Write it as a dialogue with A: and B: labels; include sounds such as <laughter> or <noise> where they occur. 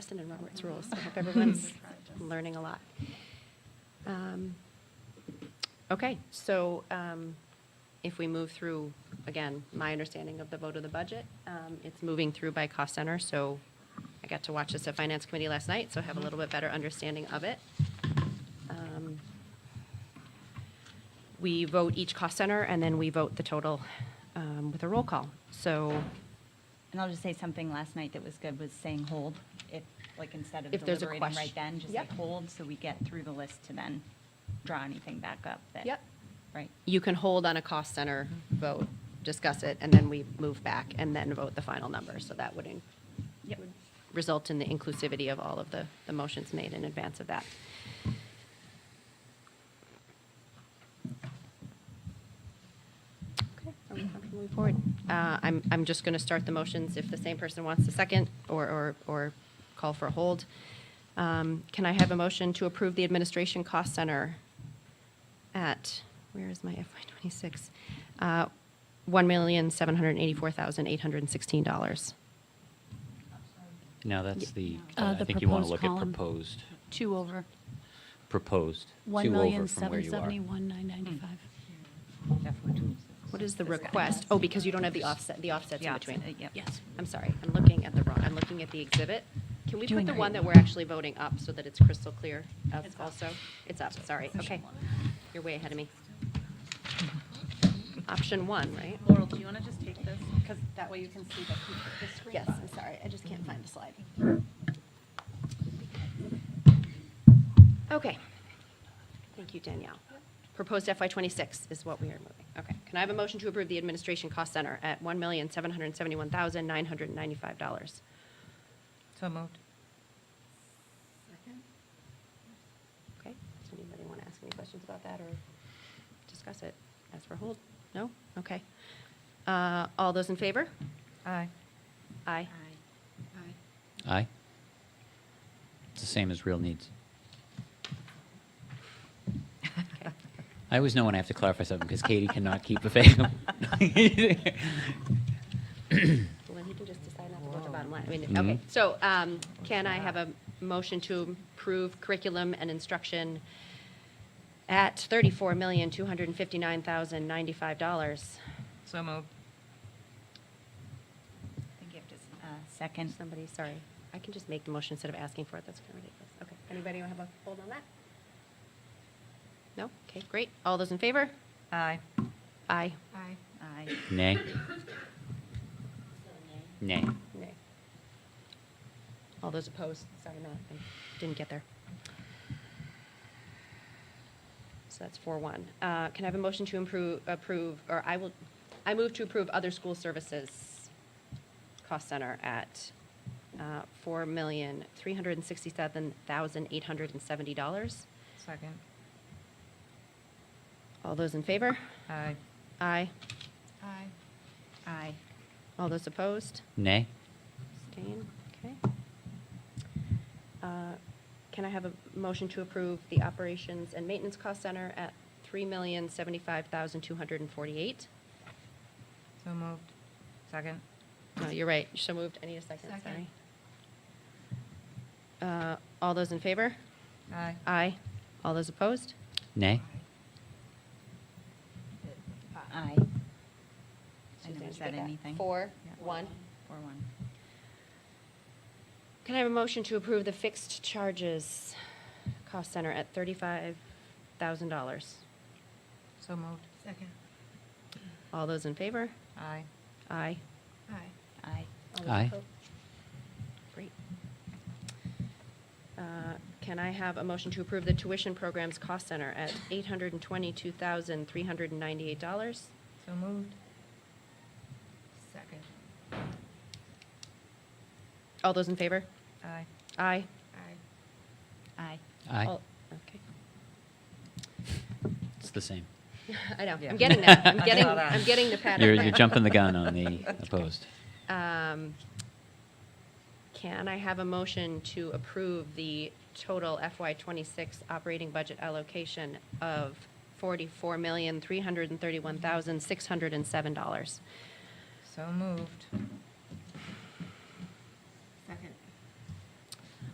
A: Preston and Robert's rules. I hope everyone's learning a lot. Um, Okay, so um, if we move through, again, my understanding of the vote of the budget, um, it's moving through by cost center, so I got to watch this at Finance Committee last night, so I have a little bit better understanding of it. Um, We vote each cost center, and then we vote the total um, with a roll call. So
B: And I'll just say something last night that was good was saying hold, if, like, instead of
A: If there's a
B: deliberating right
A: question-
B: then, just say
A: Yep.
B: hold, so we get through the list to then draw anything back up that.
A: Yep.
B: Right.
A: you can hold on a cost center vote, discuss it, and then we move back and then vote the final number. So that would in-
B: Yep.
A: result in the inclusivity of all of the, the motions made in advance of that. Okay, are we comfortable moving forward? Uh, I'm, I'm just going to start the motions if the same person wants to second or, or, or call for a hold. Um, Can I have a motion to approve the Administration Cost Center at, where is my FY '26? Uh, $1,784,816.
C: No, that's the,
D: Uh,
C: uh, I
D: the
C: think you want to look
D: proposed
C: at
D: column.
C: proposed,
D: Two over,
C: proposed,
D: one
C: two
D: million
C: over from where you
D: seven
C: are.
D: seventy-one nine ninety-five.
A: What is the
B: This guy.
A: request? Oh, because you don't have the offset, the offsets in
B: Yeah,
A: between.
B: uh, yep.
D: Yes.
A: I'm sorry, I'm looking at the wrong, I'm looking at the exhibit. Can we put
B: Doing
A: the one
B: great.
A: that we're actually voting up so that it's crystal clear up also? It's up, sorry, okay. You're way ahead of me. Option one, right?
E: Laurel, do you want to just take this? Because that way you can see the the screen.
A: Yes,
E: fine.
A: I'm sorry, I just can't find the slide. Okay. Thank you, Danielle. Proposed FY '26 is what we are moving. Okay. Can I have a motion to approve the Administration Cost Center at $1,771,995?
B: So moved.
A: Okay, does anybody want to ask any questions about that or discuss it? Ask for hold? No? Okay. Uh, All those in favor?
B: Aye.
A: Aye.
C: Aye. It's the same as real needs.
A: Okay.
C: I always know when I have to clarify something because Katie cannot keep a
B: <laughs>
C: faithful.
A: Well, then he can just decide not to go to the bottom line. I mean,
C: Mhm.
A: okay, so um, can I have a motion to approve curriculum and instruction at $34,259,095?
F: So moved.
B: I think you have to, s- uh, second.
A: Somebody, sorry, I can just make the motion instead of asking for it, that's kind of ridiculous. Okay, anybody want to have a hold on that? No? Okay, great. All those in favor?
B: Aye.
A: Aye.
E: Aye.
B: Aye.
C: <laughs> Nay. Nay.
A: Nay. All those opposed? Sorry, no, I didn't get there. So that's four one. Uh, can I have a motion to improve, approve, or I will, I move to approve other school services cost center at, uh, four million, three hundred and sixty-seven thousand, eight hundred and seventy dollars.
F: Second.
A: All those in favor?
F: Aye.
A: Aye.
E: Aye.
B: Aye.
A: All those opposed?
C: Nay.
A: Abstain, okay. Uh, Can I have a motion to approve the operations and maintenance cost center at $3,075,248?
F: So moved. Second.
A: No, you're right, you so moved, I need a second,
E: Second.
A: sorry. Uh, All those in favor?
F: Aye.
A: Aye. All those opposed?
B: Aye.
C: Nay.
B: Uh, I
A: Suzanne,
B: never
A: did you
B: said
A: get that?
B: anything.
A: Four,
B: Yeah.
A: one.
B: Four, one.
A: Can I have a motion to approve the fixed charges cost center at $35,000?
F: So moved.
E: Second.
A: All those in favor?
F: Aye.
A: Aye.
E: Aye.
B: Aye.
A: All those
C: Aye.
A: opposed? Great. Uh, Can I have a motion to approve the tuition programs cost center at $822,398?
F: So moved.
E: Second.
A: All those in favor?
F: Aye.
A: Aye.
E: Aye.
B: Aye.
C: Aye.
A: All- Okay. <laughs>
C: It's the same.
A: I know,
F: Yeah.
A: I'm getting there. I'm
F: <laughs> I
A: getting,
F: saw that.
A: I'm getting the pattern.
C: You're, you're jumping the gun
A: <laughs>
C: on the opposed.
A: Um, Can I have a motion to approve the total FY '26 operating budget allocation of $44,331,607?
F: So moved.